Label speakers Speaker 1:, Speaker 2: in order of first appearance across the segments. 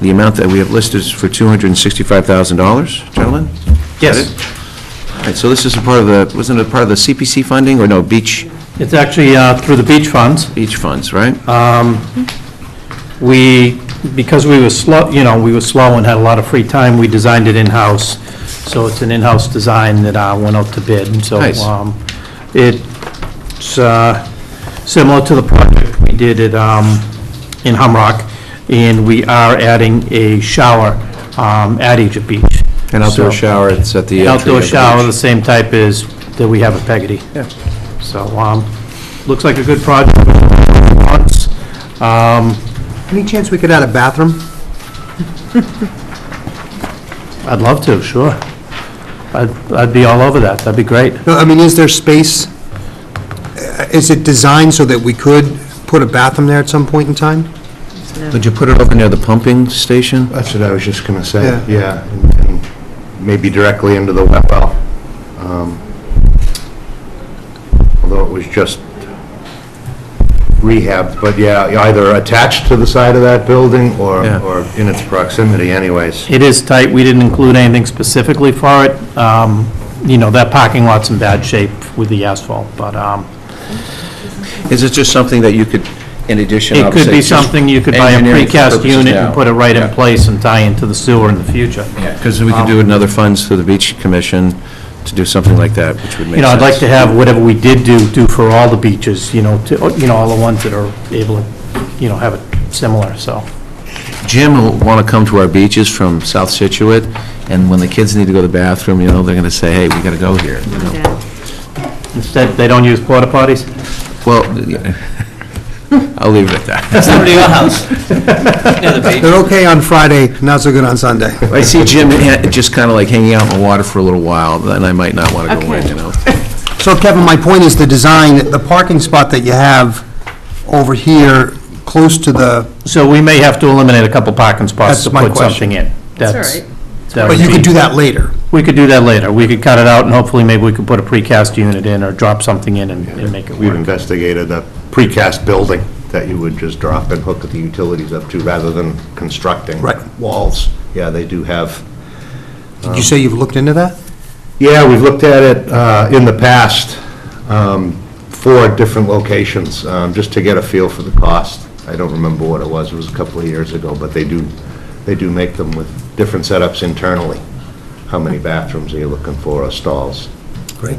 Speaker 1: The amount that we have listed is for $265,000, gentlemen?
Speaker 2: Yes.
Speaker 1: All right, so this is a part of the, wasn't it part of the CPC funding, or no, beach,
Speaker 2: It's actually uh, through the beach funds.
Speaker 1: beach funds, right?
Speaker 2: Uh, We, because we were slow, you know, we were slow and had a lot of free time, we designed it in-house. So it's an in-house design that uh, went out to bid, and so.
Speaker 1: Nice.
Speaker 2: um, It's uh, similar to the project we did at, um, in Humrock, and we are adding a shower um, at Egypt Beach.
Speaker 1: An outdoor
Speaker 2: So-
Speaker 1: shower, it's at the
Speaker 2: An
Speaker 1: entry of the
Speaker 2: outdoor shower,
Speaker 1: beach.
Speaker 2: the same type as that we have at Peggotty.
Speaker 1: Yeah.
Speaker 2: So, um, looks like a good project. Lots, um,
Speaker 3: Any chance we could add a bathroom?
Speaker 2: I'd love to, sure. I'd, I'd be all over that, that'd be great.
Speaker 3: No, I mean, is there space? Uh, Is it designed so that we could put a bathroom there at some point in time?
Speaker 1: Would you put it over near the pumping station?
Speaker 4: That's what I was just going to say,
Speaker 3: Yeah.
Speaker 4: yeah, and- and maybe directly into the wet well. um, Although it was just rehab, but yeah, either attached to the side of that building or,
Speaker 1: Yeah.
Speaker 4: or in its proximity anyways.
Speaker 2: It is tight, we didn't include anything specifically for it. Um, you know, that parking lot's in bad shape with the asphalt, but, um,
Speaker 1: Is it just something that you could, in addition,
Speaker 2: it could
Speaker 1: obviously,
Speaker 2: be
Speaker 1: it's just
Speaker 2: something, you could buy a
Speaker 1: engineering for
Speaker 2: precast
Speaker 1: purposes
Speaker 2: unit
Speaker 1: now.
Speaker 2: and put it right in Um,
Speaker 1: Yeah.
Speaker 2: place and tie into the sewer in the future.
Speaker 1: Because we could do another funds through the Beach Commission to do something like that, which would make sense.
Speaker 2: You know, I'd like to have whatever we did do, do for all the beaches, you know, to, you know, all the ones that are able to, you know, have it similar, so.
Speaker 1: Jim will want to come to our beaches from South Situate, and when the kids need to go to the bathroom, you know, they're going to say, hey, we got to go here. you know.
Speaker 2: Instead, they don't use porta potties?
Speaker 1: Well, yeah. I'll leave it at that.
Speaker 3: They're okay on Friday, not so good on Sunday.
Speaker 1: If I see Jim ha- just kind of like hanging out in the water for a little while, then I might not want to go in, you know?
Speaker 3: So Kevin, my point is the design, the parking spot that you have over here, close to the,
Speaker 2: So we may have to eliminate a couple parking spots
Speaker 3: That's
Speaker 2: to
Speaker 3: my
Speaker 2: put
Speaker 3: question.
Speaker 2: something in.
Speaker 5: all right.
Speaker 2: that
Speaker 3: but
Speaker 2: would
Speaker 3: you could
Speaker 2: be-
Speaker 3: do that later.
Speaker 2: We could do that later. We could cut it out, and hopefully, maybe we could put a precast unit in, or drop something in and and make it
Speaker 4: We've
Speaker 2: work.
Speaker 4: investigated a precast building that you would just drop and hook the utilities up to rather than constructing
Speaker 3: Right.
Speaker 4: walls. Yeah, they do have
Speaker 3: Did you say you've looked into that?
Speaker 4: Yeah, we've looked at it uh, in the past, um, four different locations, um, just to get a feel for the cost. I don't remember what it was, it was a couple of years ago, but they do, they do make them with different setups internally. How many bathrooms are you looking for, or stalls?
Speaker 3: Great.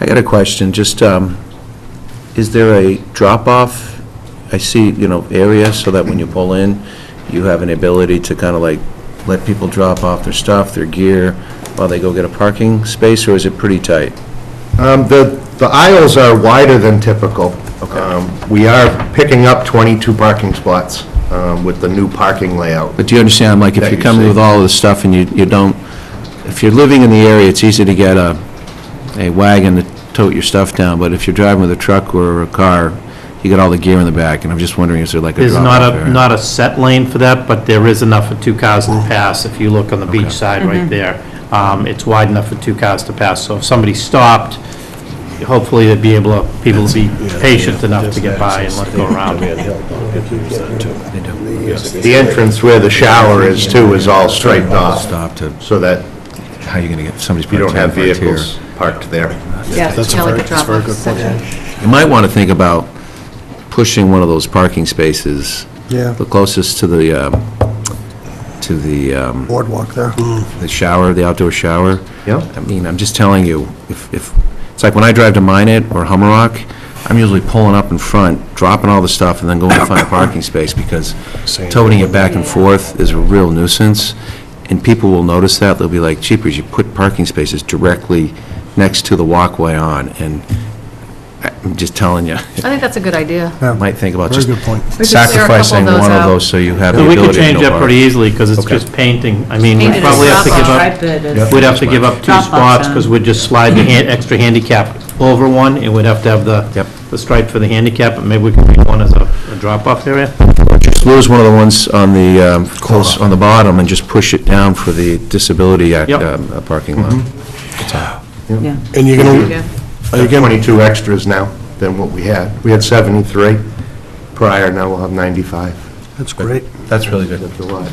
Speaker 1: I got a question, just, um, is there a drop-off? I see, you know, area, so that when you pull in, you have an ability to kind of like let people drop off their stuff, their gear, while they go get a parking space, or is it pretty tight?
Speaker 4: Um, The the aisles are wider than typical. Um, We are picking up 22 parking spots um, with the new parking layout.
Speaker 1: But do you understand, like, if
Speaker 4: That
Speaker 1: you're
Speaker 4: you
Speaker 1: coming
Speaker 4: see.
Speaker 1: with all of this stuff and you, you don't, if you're living in the area, it's easy to get a, a wagon to tote your stuff down, but if you're driving with a truck or a car, you got all the gear in the back, and I'm just wondering, is there like a
Speaker 2: There's
Speaker 1: drop-off
Speaker 2: not
Speaker 1: area?
Speaker 2: a, not a set lane for that, but there is enough for two cars to pass, if you look on the beach side right there. Um, It's wide enough for two cars to pass, so if somebody stopped, hopefully, they'd be able, to people to be patient enough to get by and let it go around.
Speaker 4: The entrance where the shower is, too, is all straightened off,
Speaker 1: Stop to,
Speaker 4: so that
Speaker 1: how are you gonna get, somebody's
Speaker 4: you don't
Speaker 1: parked
Speaker 4: have
Speaker 1: down right here.
Speaker 4: vehicles parked there.
Speaker 5: Yeah, it's kind of like a drop-off section.
Speaker 1: You might wanna think about pushing one of those parking spaces,
Speaker 3: Yeah,
Speaker 1: the closest to the, um, to the, um,
Speaker 3: boardwalk there.
Speaker 1: the shower, the outdoor shower.
Speaker 4: Yep.
Speaker 1: I mean, I'm just telling you, if, if, it's like when I drive to Minnet or Hummerock, I'm usually pulling up in front, dropping all the stuff, and then going to find a parking space, because toting it back and forth is a real nuisance, and people will notice that, they'll be like, jeepers, you put parking spaces directly next to the walkway on, and I- I'm just telling you,
Speaker 5: I think that's a good idea.
Speaker 1: I might think about
Speaker 3: Very
Speaker 1: just
Speaker 3: good point.
Speaker 5: We could clear a couple
Speaker 1: sacrificing
Speaker 5: those
Speaker 1: one of
Speaker 5: out.
Speaker 1: those, so you have the
Speaker 2: So we
Speaker 1: ability to
Speaker 2: could change
Speaker 1: no
Speaker 2: that pretty
Speaker 1: park.
Speaker 2: easily, because it's
Speaker 1: Okay.
Speaker 2: just painting. I mean, we
Speaker 5: Painted
Speaker 2: probably have to give up,
Speaker 6: up.
Speaker 2: we'd have to give up two
Speaker 6: Drop-off
Speaker 2: spots,
Speaker 6: zone.
Speaker 2: because we'd just slide the han- extra handicap over one, and we'd have to have the,
Speaker 1: Yep.
Speaker 2: the stripe for the handicap, but maybe we could make one as a a drop-off area.
Speaker 1: Just lose one of the ones on the, um, close, on the bottom and just push it down for the disability act-
Speaker 2: Yep.
Speaker 1: um, uh, parking lot.
Speaker 6: Yeah.
Speaker 4: And you're
Speaker 5: Yeah.
Speaker 4: Are you 22 extras now than what we had? We had 73 prior, now we'll have 95.
Speaker 3: That's great.
Speaker 1: That's really good.
Speaker 4: That's a lot.